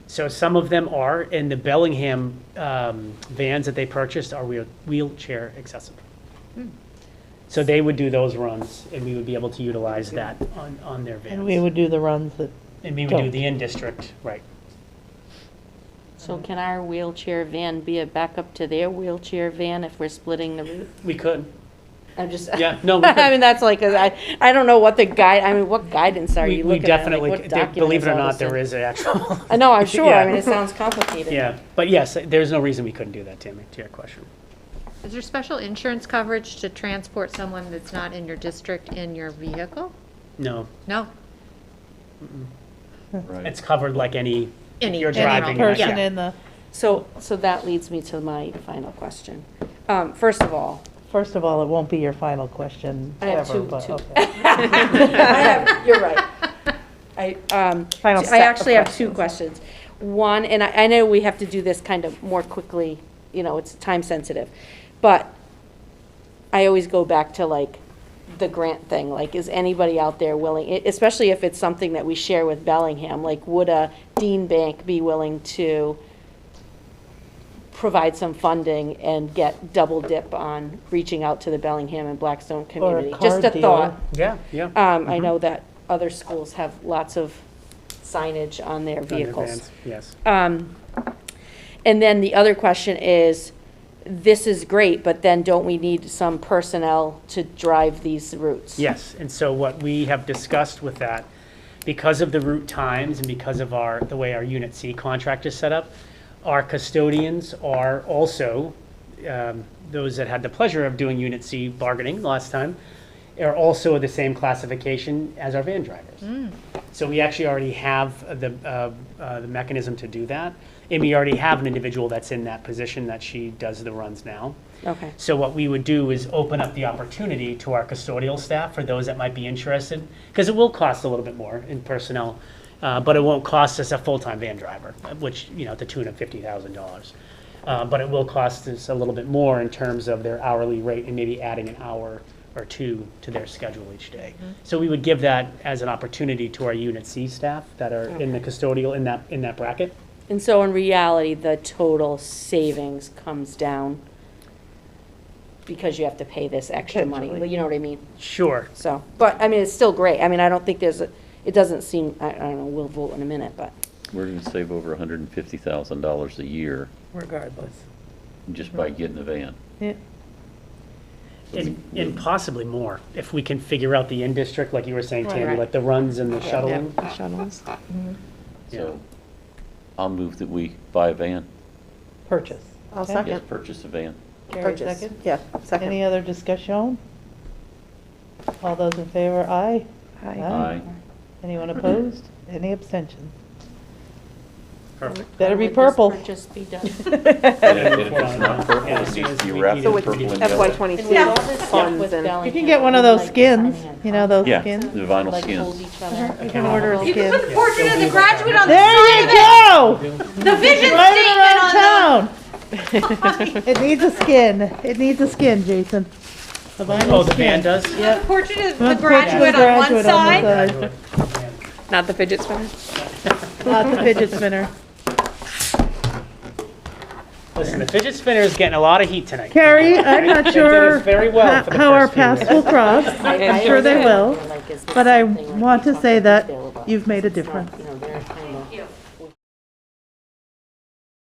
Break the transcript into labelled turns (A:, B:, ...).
A: So some of them are, and the Bellingham um, vans that they purchased are wheel- wheelchair accessible.
B: Hmm.
A: So they would do those runs, and we would be able to utilize that on, on their
C: And we
A: vans.
C: would do the runs that,
A: And we would do
C: don't.
A: the in-district, right.
B: So can our wheelchair van be a backup to their wheelchair van if we're splitting the route?
A: We could.
B: I'm just.
A: Yeah, no, we could.
B: I mean, that's like, 'cause I, I don't know what the guide, I mean, what guidance are
A: We
B: you
A: we
B: looking at? Like,
A: definitely,
B: what
A: could. There-
B: document
A: believe it or
B: all
A: not,
B: this
A: there
B: in?
A: is an actual,
B: I know, I'm sure,
A: Yeah.
B: I mean, it sounds complicated.
A: yeah. But yes, there's no reason we couldn't do that, Tammy, to your question.
D: Is there special insurance coverage to transport someone that's not in your district in your vehicle?
A: No,
D: No?
A: it's covered like any,
D: Any-
A: you're
D: any
A: driving.
D: route.
A: like-
C: person
A: yeah.
C: in the,
B: So, so that leads me to my final question. Um, first of all,
C: first of all, it won't be your final question
B: I have
C: ever,
B: two-
C: but
B: two.
C: okay.
B: I have, you're right. I, um,
C: Final
B: I
C: set of
B: actually have two questions. One, and I, I know we have to do this kind of more quickly, you know, it's time sensitive. But I always go back to like the grant thing, like is anybody out there willing, e- especially if it's something that we share with Bellingham, like would a Dean Bank be willing to provide some funding and get double dip on reaching out to the Bellingham and Blackstone community?
C: car
B: Just a
C: dealer.
B: thought.
A: Yeah, yeah.
B: Um,
C: Mm-hmm.
B: I know that other schools have lots of signage on their
A: On your
B: vehicles.
A: vans, Yes.
B: Um, and then the other question is, this is great, but then don't we need some personnel to drive these routes?
A: Yes, and so what we have discussed with that, because of the route times and because of our, the way our Unit C contract is set up, our custodians are also, um, those that had the pleasure of doing Unit C bargaining last time, are also the same classification as our van drivers. So we actually already have the, uh, uh, the mechanism to do that. And we already have an individual that's in that position that she does the runs now.
B: Okay,
A: So what we would do is open up the opportunity to our custodial staff for those that might be interested, because it will cost a little bit more in personnel, uh, but it won't cost us a full-time van driver, uh, which, you know, to tune of fifty thousand dollars. Uh, but it will cost us a little bit more in terms of their hourly rate and maybe adding an hour or two to their schedule each day. So we would give that as an opportunity to our Unit C staff that are in the custodial, in that, in that bracket.
B: and so in reality, the total savings comes down because you have to pay this extra money,
C: Potentially.
B: you know what I mean?
A: Sure,
B: So, but, I mean, it's still great, I mean, I don't think there's, a. it doesn't seem, I, I don't know, we'll vote in a minute, but.
E: We're gonna save over hundred and fifty thousand dollars a year
C: Regardless.
E: just by getting a van.
C: Yeah.
E: So we-
A: And, and possibly more, if we can figure out the in-district, like you were saying, Tammy,
B: Right.
A: like the runs and the
C: Yeah,
A: shuttling.
C: the Shuttles,
E: So, I'll move that we buy a van.
C: purchase.
B: I'll
C: Okay?
E: Yes, purchase a van.
C: Carrie,
B: Purchase.
C: second.
F: Yeah, second.
C: Any other discussion? All those in favor, aye. Oh.
E: Aye.
C: Anyone opposed? Any abstentions?
A: Perfect.
C: Better be
B: Would this
C: purple.
B: purchase be done?
E: And if it is not purple,
A: Yeah,
E: it needs to be
A: we
E: wrapped
F: So
E: in
F: it's
E: purple and
F: FY
E: yellow.
B: And
F: twenty-two
B: we all just stuff
F: funds
B: with
F: and.
C: You
B: Bellingham,
C: can get one of
B: like
C: those
B: the
C: skins,
B: Bellingham
C: you know, those
E: Yeah,
C: skins.
E: the vinyl
B: Like hold
E: skins.
B: each other.
C: You can order a skin.
A: Fortunate the graduate
D: on
C: There you go!
D: the vision
C: Right around town! It needs a skin, it needs a skin, Jason. The
A: Oh,
C: vinyl
A: the
C: skin.
A: van does?
D: the portrait of
C: Put the graduate on the side,
F: Not the fidget spinner?
C: Not the fidget spinner.
A: Listen, the fidget spinner is getting a lot of heat tonight.
C: Carrie, I'm
A: They
C: not
A: did
C: sure
A: us very well
C: ho-
A: for the
C: how our
A: first few
C: paths
A: minutes.
C: will cross.
B: I- I
C: sure they
B: always
C: will,
B: wonder, like, is this
C: But I
B: something, like,
C: want
B: we
C: to
B: talked
C: say
B: to
C: that
B: Bill about?
C: you've made a
B: It's not
C: difference.